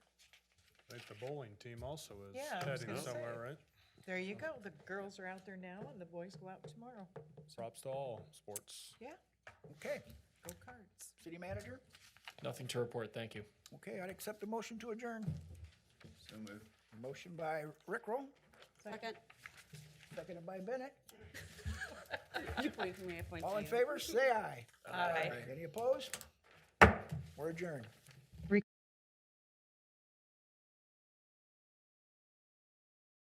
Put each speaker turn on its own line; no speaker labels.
I think the bowling team also is
Yeah, I was
heading
gonna say.
somewhere, right?
There you go. The girls are out there now and the boys go out tomorrow.
Props to all sports.
Yeah,
Okay,
go cards.
city manager?
Nothing to report, thank you.
Okay, I'd accept a motion to adjourn.
So moved.
Motion by Rickrell,
Second.
seconded by Bennett.
Please, may I point
All in
to you?
favor, say aye.
Aye.
Any opposed? We're adjourned.